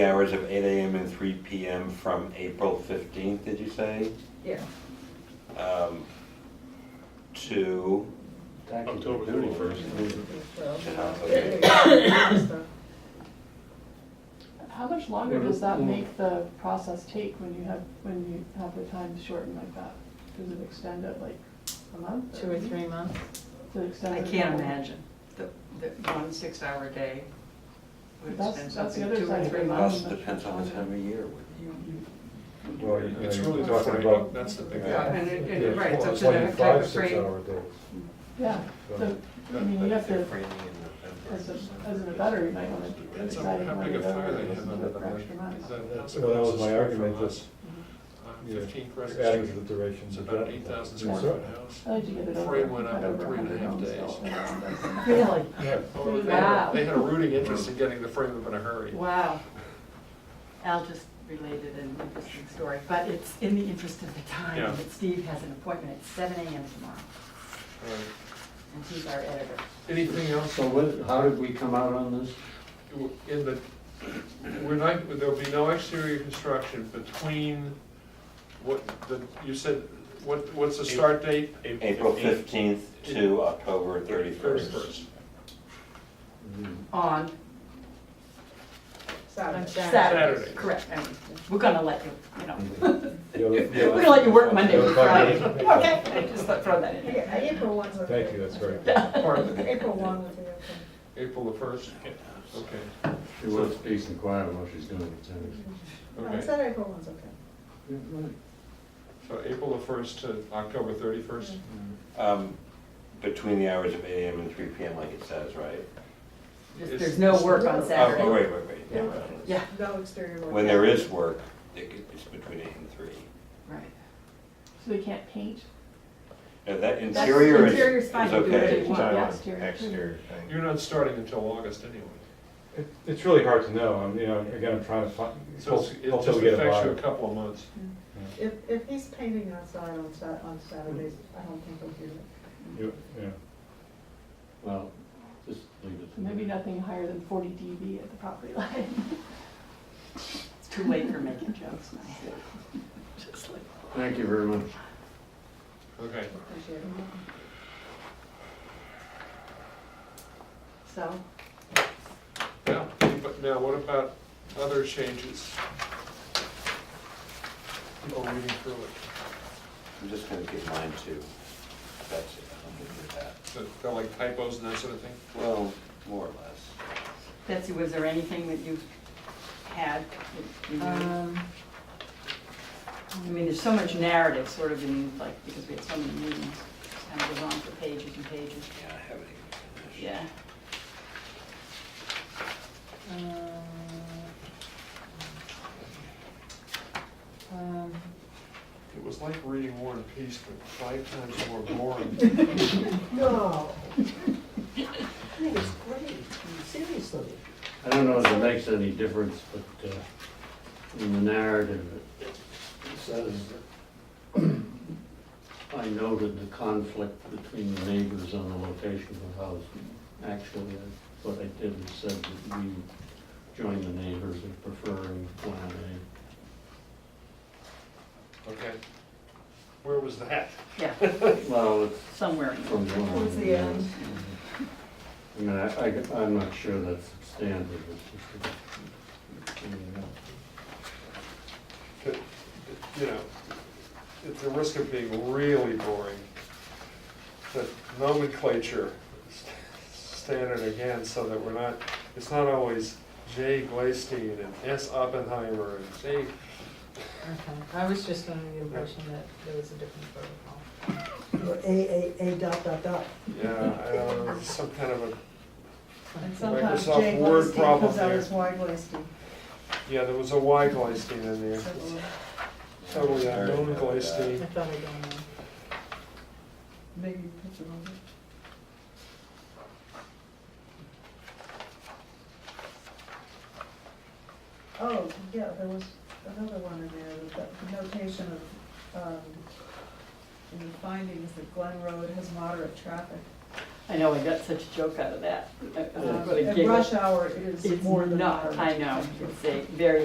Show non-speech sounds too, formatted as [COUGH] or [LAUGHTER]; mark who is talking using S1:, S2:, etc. S1: Hours of eight AM and three PM from April fifteenth, did you say?
S2: Yeah,
S1: Um, To,
S3: October 31st.
S2: well.
S1: to have
S2: yeah,
S1: a-
S2: yeah, yeah, stuff.
S4: How much longer does that make the process take when you have, when you have the time shortened like that? Does it extend it like a month?
S2: Two or three months?
S4: Does it extend
S5: I
S4: it
S5: can't
S4: more?
S5: imagine, the, the one six-hour day would
S4: That's-
S5: extend
S4: that's the
S5: something
S4: other
S5: two or
S4: side of
S5: three
S4: it.
S5: months.
S1: plus depends on the time of year.
S6: Well,
S3: It's really
S6: you're
S3: talking about, that's the big
S5: Yeah,
S3: thing.
S5: and it,
S6: Yeah,
S5: it, right, it's up
S6: it's
S5: to the
S6: like
S5: type
S6: five,
S5: of frame.
S6: six-hour days.
S4: Yeah, so, I mean, you have to, as a, as an abutter, you might wanna
S3: Depends on
S4: decide
S3: how
S4: how
S3: big
S4: many
S3: a fire they have
S4: hours
S3: under
S4: for extra Mm-hmm.
S3: Is
S4: miles.
S3: that- that's
S6: Well, that
S3: across
S6: was
S3: the
S6: my
S3: street
S6: argument,
S3: from
S6: that's
S3: us. Uh,
S6: you know,
S3: Fifteen
S6: it's
S3: Crescent
S6: adding to
S3: Street.
S6: the duration.
S3: It's
S6: of
S3: about
S6: that.
S3: eight thousand
S6: Yes,
S3: square
S6: sir.
S3: foot house.
S4: I
S5: Oh,
S4: like to get it over.
S3: Frame went up
S4: cut
S3: in
S4: over
S3: three and a half
S4: 100
S3: days.
S4: homes,
S5: [LAUGHS]
S4: so-
S5: Really?
S6: Yeah.
S3: Oh, they-
S5: Wow.
S3: They had a rooting interest in getting the frame up in a hurry.
S5: Wow. Al just related an interesting story, but it's in the interest of the
S3: Yeah.
S5: time that Steve has an appointment at seven AM tomorrow,
S3: All right.
S5: and he's our editor.
S3: Anything else?
S7: So what, how did we come out on this?
S3: In the, we're not, there'll be no exterior construction between what, the, you said, what, what's the start date?
S1: April fifteenth to October thirty-first.
S3: Thirty-first.
S5: On
S2: Saturday.
S5: Saturday,
S3: Saturday.
S5: correct, I mean, we're gonna let you, you know,
S6: You'll-
S5: we're
S6: you'll-
S5: gonna let you work Monday
S6: you'll
S5: through Friday, [LAUGHS]
S6: find
S5: okay?
S6: out.
S5: I just thought- throw that in. there.
S2: Yeah,
S5: [LAUGHS]
S2: April one's okay.
S6: Thank you, that's very good.
S3: Pardon?
S2: [LAUGHS] April one would be okay.
S3: April the first? Okay,
S7: She was decent quiet while she's doing it, so.
S2: No, I
S3: okay.
S2: said Uh, April one's okay.
S3: So April the first to October thirty-first?
S5: Mm.
S1: Um, Between the hours of eight AM and three PM, like it says, right?
S5: Just- There's no work on
S1: Oh,
S5: Saturday.
S1: Oh, wait, wait, wait.
S5: Yeah.
S1: never mind.
S5: Yeah,
S2: No exterior work.
S1: When there is work, it could- it's between eight and three.
S5: right.
S4: So they can't paint
S1: Now, Uh, that
S5: That's-
S1: interior is,
S5: interior's
S1: is
S5: fine, you do whatever
S1: okay.
S5: you want, yeah.
S4: exterior.
S8: exterior thing.
S3: You're not starting until August anyway.
S6: It- It's really hard to know, I'm, you know, again, I'm trying to find,
S3: So it's- it
S6: until
S3: just
S6: we get a
S3: affects you a
S6: buyer.
S3: couple of months.
S2: If, if he's painting outside on Sat, on Saturdays, I don't think he'll do it.
S6: You- yeah.
S7: Well, just leave it.
S4: Maybe nothing higher than forty dB at the property line.
S5: It's too late for making jokes now. Just like.
S7: Thank you very much.
S3: Okay.
S2: Appreciate it.
S5: So,
S3: Now, but now what about other changes? People reading through it,
S1: I'm just gonna get mine too. That's it, I'm gonna get that.
S3: so they're like typos and that sort of thing?
S1: Well, more or less.
S5: Betsy, was there anything that you had? that you-
S9: Um,
S5: I mean, there's so much narrative sort of in, like, because we had so many meetings, it kind of goes on for pages and pages.
S1: Yeah, I haven't even finished.
S5: Yeah.
S3: It was like reading War and Peace, but five times more boring.
S2: No. [LAUGHS] I think it's great, seriously.
S7: I don't know if it makes any difference, but uh, in the narrative, it it says that I noted the conflict between the neighbors on the location of the house. Actually, uh, what I did is said that we joined the neighbors in preferring Plan A.
S3: Okay. Where was that?
S5: Yeah,
S7: Well, it's
S5: somewhere. in there.
S7: From one.
S2: Towards the end.
S7: I mean, I, I, am not sure that's standard, it's just. a- I mean, uh,
S3: Could- You know, it's a risk of being really boring. The nomenclature s- standard again, so that we're not, it's not always J. Glastein and S. Oppenheimer and J.
S9: I was just under the impression that there was a different protocol.
S2: Or A, A, A dot, dot, dot.
S3: Yeah, I don't know, some kind of a,
S2: And sometimes
S3: Microsoft
S2: Jay
S3: Word
S2: Glastine
S3: problem
S2: comes out
S3: here.
S2: as Y Glastine.
S3: yeah, there was a Y. Glastein in there.
S2: uh,
S3: Totally unknown
S9: I
S3: Glastein.
S9: thought I'd gone on.
S2: Maybe you put it on. Oh, yeah, there was another one in there, with the notation of, um, in the findings that Glen Road has moderate traffic.
S5: I know, I got such a joke out of that. Uh,
S2: Um,
S5: what a
S2: and
S5: giggle.
S2: Rush hour is
S5: It's
S2: more than.
S5: not,
S2: moderate.
S5: I know, it's a very